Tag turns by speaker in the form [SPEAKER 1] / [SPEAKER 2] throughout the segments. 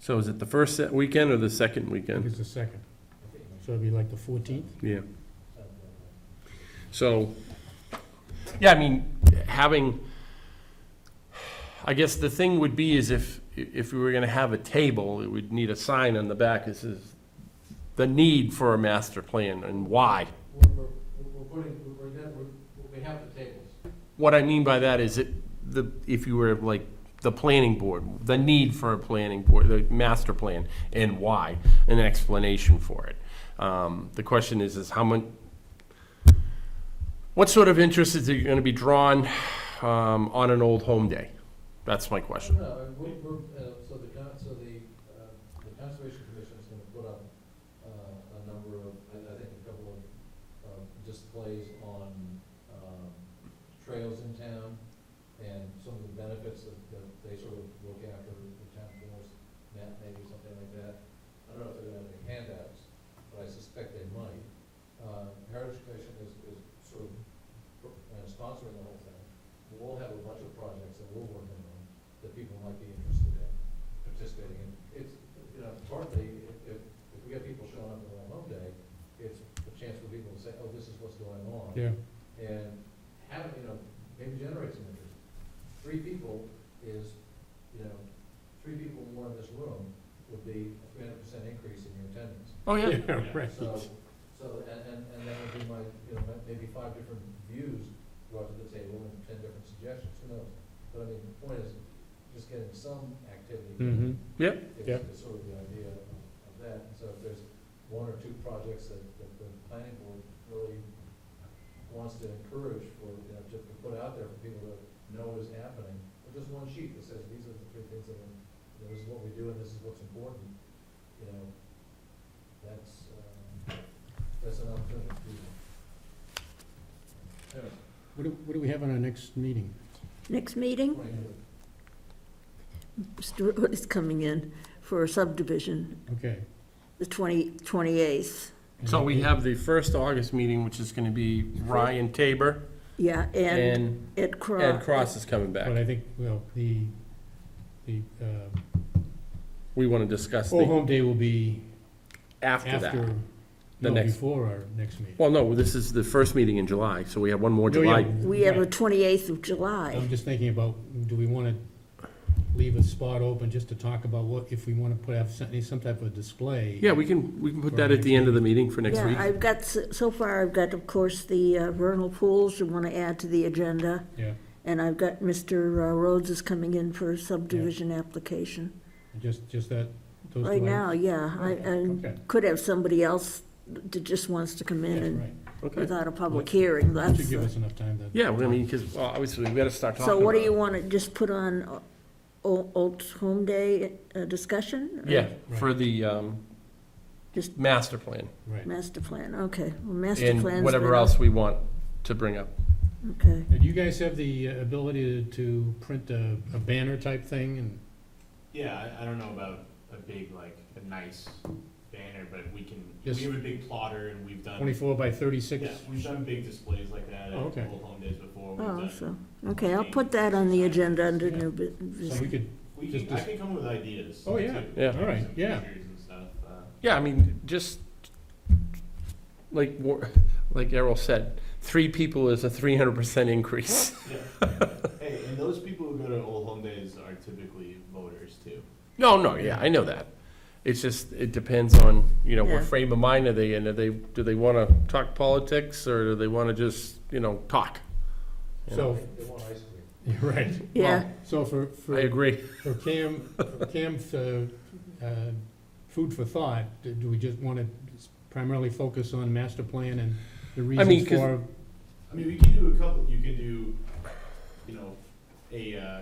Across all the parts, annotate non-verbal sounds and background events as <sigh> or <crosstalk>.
[SPEAKER 1] So is it the first se- weekend or the
[SPEAKER 2] I
[SPEAKER 1] second
[SPEAKER 2] think
[SPEAKER 1] weekend?
[SPEAKER 2] it's the second. So it'd be like the fourteenth?
[SPEAKER 1] Yeah. So, yeah, I mean, having, I guess the thing would be is if, if we were gonna have a table, it would need a sign on the back that says the need for a master plan and why.
[SPEAKER 3] We're, we're, we're putting, we're, we're- we have the tables.
[SPEAKER 1] What I mean by that is it, the, if you were like, the planning board, the need for a planning board, the master plan, and why, an explanation for it. Um, the question is, is how much, what sort of interest is it gonna be drawn, um, on an old home day? That's my question.
[SPEAKER 3] No, no, we, we're, uh, so the, con- so the, uh, the conservation commission's gonna put up, uh, a number of, I, I think a couple of, um, displays on, um, trails in town and some of the benefits that, that they sort of look after, the town forest map maybe, something like that. I don't know if they're gonna have any handouts, but I suspect they might. Uh, Heritage Commission is, is sort of pro- uh, sponsoring the whole thing. We'll have a bunch of projects that we're working on that people might be interested in participating in. It's, you know, partly, if, if if we get people showing up on home day, it's a chance for people to say, oh, this is what's going on
[SPEAKER 2] Yeah.
[SPEAKER 3] and have, you know, maybe generate some interest. Three people is, you know, three people more in this room would be a three hundred percent increase in your attendance.
[SPEAKER 1] Oh, yeah.
[SPEAKER 2] <laughs> Yeah, right.
[SPEAKER 3] So, so, and, and, and that would be my, you know, ma- maybe five different views brought to the table and ten different suggestions, who knows? But I mean, the point is, just getting some activity
[SPEAKER 2] Mm-hmm.
[SPEAKER 3] is
[SPEAKER 2] Yep.
[SPEAKER 3] is sort of the idea of of that. And so if there's one or two projects that, that the planning board really wants to encourage for, you know, to to put out there for people to know what is happening, or just one sheet that says, these are the three things that are, you know, this is what we do and this is what's important, you know, that's, um, that's an opportunity for people. Anyway,
[SPEAKER 2] What do, what do we have on our next meeting?
[SPEAKER 4] Next meeting,
[SPEAKER 3] twenty-four.
[SPEAKER 4] Stuart is coming in for a subdivision,
[SPEAKER 2] Okay.
[SPEAKER 4] the 20 28th.
[SPEAKER 1] So we have the first August meeting, which is gonna be Ryan Tabor,
[SPEAKER 4] Yeah, and
[SPEAKER 1] and
[SPEAKER 4] Ed Cross.
[SPEAKER 1] Ed Cross is coming
[SPEAKER 2] But
[SPEAKER 1] back.
[SPEAKER 2] I think, well, the, the, uh,
[SPEAKER 1] We wanna discuss
[SPEAKER 2] Old
[SPEAKER 1] the,
[SPEAKER 2] Home Day will be
[SPEAKER 1] after that.
[SPEAKER 2] after,
[SPEAKER 1] The
[SPEAKER 2] no,
[SPEAKER 1] next-
[SPEAKER 2] before our next meeting.
[SPEAKER 1] Well, no, this is the first meeting in July, so we have one more
[SPEAKER 2] Oh, yeah,
[SPEAKER 1] July
[SPEAKER 4] We have a
[SPEAKER 2] right.
[SPEAKER 4] 28th of July.
[SPEAKER 2] I'm just thinking about, do we wanna leave a spot open just to talk about what, if we wanna put, have some, some type of display?
[SPEAKER 1] Yeah, we can, we can put
[SPEAKER 2] For
[SPEAKER 1] that at
[SPEAKER 2] next
[SPEAKER 1] the end of the meeting for next
[SPEAKER 4] Yeah,
[SPEAKER 1] week.
[SPEAKER 4] I've got, s- so far, I've got, of course, the uh, vernal pools I want to add to the agenda,
[SPEAKER 2] Yeah,
[SPEAKER 4] and I've got Mr. uh, Rhodes is coming in for a subdivision application.
[SPEAKER 2] just, just that, those two
[SPEAKER 4] Right now,
[SPEAKER 2] items?
[SPEAKER 4] yeah, I, I
[SPEAKER 2] Okay,
[SPEAKER 4] could have somebody else that just wants to come in
[SPEAKER 2] yeah,
[SPEAKER 4] and
[SPEAKER 2] right.
[SPEAKER 1] Okay.
[SPEAKER 4] without a public hearing,
[SPEAKER 2] That
[SPEAKER 4] that's.
[SPEAKER 2] should give
[SPEAKER 4] the-
[SPEAKER 2] us enough time to.
[SPEAKER 1] Yeah, I mean, because, well, obviously, we gotta start talking
[SPEAKER 4] So what do
[SPEAKER 1] about
[SPEAKER 4] you
[SPEAKER 1] it.
[SPEAKER 4] want to just put on uh, o- Old Home Day uh, discussion?
[SPEAKER 1] Yeah,
[SPEAKER 2] Right.
[SPEAKER 1] for the, um,
[SPEAKER 4] Just-
[SPEAKER 1] master plan
[SPEAKER 2] Right.
[SPEAKER 4] Master plan, okay. Well, Master
[SPEAKER 1] and
[SPEAKER 4] plan's
[SPEAKER 1] whatever
[SPEAKER 4] been-
[SPEAKER 1] else we want to bring up.
[SPEAKER 4] Okay.
[SPEAKER 2] Now, Do you guys have the uh, ability to- to print a, a banner type thing and,
[SPEAKER 5] Yeah, I, I don't know about a big, like, a nice banner, but we can,
[SPEAKER 2] Just-
[SPEAKER 5] we have a big plotter and we've done,
[SPEAKER 2] Twenty-four by thirty-six?
[SPEAKER 5] yeah, we've done big displays like that at
[SPEAKER 2] Oh, okay.
[SPEAKER 5] Old Home Days before. We've
[SPEAKER 4] Oh,
[SPEAKER 5] done-
[SPEAKER 4] so, okay, I'll put that on the agenda under new bu-
[SPEAKER 2] So we
[SPEAKER 4] business.
[SPEAKER 2] could,
[SPEAKER 5] We
[SPEAKER 2] Just
[SPEAKER 5] can, I
[SPEAKER 2] dis-
[SPEAKER 5] can come up with ideas.
[SPEAKER 2] Oh, yeah.
[SPEAKER 5] too.
[SPEAKER 1] Yeah.
[SPEAKER 2] All right,
[SPEAKER 5] Some
[SPEAKER 2] yeah.
[SPEAKER 5] pictures and stuff, uh,
[SPEAKER 1] Yeah, I mean, just, like, War- <laughs> like Errol said, three people is a three hundred percent increase.
[SPEAKER 5] Hey, and those people who go to Old Home Days are typically voters too.
[SPEAKER 1] No, no, yeah, I know that. It's just, it depends on, you know,
[SPEAKER 4] Yeah.
[SPEAKER 1] what frame of mind are they in? Are they, do they wanna talk politics, or do they wanna just, you know, talk?
[SPEAKER 2] so, <laughs>
[SPEAKER 3] They want ice cream.
[SPEAKER 2] you're right.
[SPEAKER 4] Yeah,
[SPEAKER 2] So for,
[SPEAKER 1] I
[SPEAKER 2] for,
[SPEAKER 1] agree.
[SPEAKER 2] for Cam, for Cam, uh, uh, food for thought, do do we just wanna primarily focus on master plan and the
[SPEAKER 1] mean,
[SPEAKER 2] reasons
[SPEAKER 1] 'cause-
[SPEAKER 2] for?
[SPEAKER 5] I mean, we can do a couple, you can do, you know, a, uh,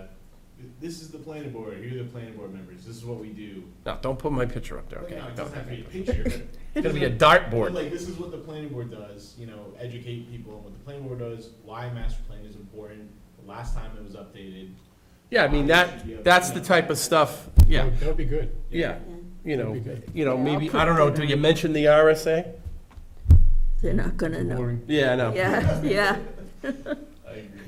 [SPEAKER 5] th- this is the planning board, here are the planning board members, this is what we do.
[SPEAKER 1] No, don't put my picture up there,
[SPEAKER 5] Like,
[SPEAKER 1] okay?
[SPEAKER 5] no, it
[SPEAKER 1] No.
[SPEAKER 5] doesn't have to be a picture, but
[SPEAKER 1] It's gonna be a dartboard.
[SPEAKER 5] But, Like, this is what the planning board does, you know, educate people on what the planning board does, why master plan is important, the last time it was updated.
[SPEAKER 1] Yeah, I mean, that, that's the type of stuff, yeah,
[SPEAKER 2] That would be good.
[SPEAKER 1] yeah, you know,
[SPEAKER 2] That'd be good.
[SPEAKER 1] you know,
[SPEAKER 4] Yeah, I'll
[SPEAKER 1] maybe,
[SPEAKER 4] put
[SPEAKER 1] I don't know,
[SPEAKER 4] that
[SPEAKER 1] do
[SPEAKER 4] on.
[SPEAKER 1] you mention the RSA?
[SPEAKER 4] they're not gonna know.
[SPEAKER 2] Boring.
[SPEAKER 1] Yeah, I know.
[SPEAKER 4] Yeah, yeah.
[SPEAKER 5] I agree.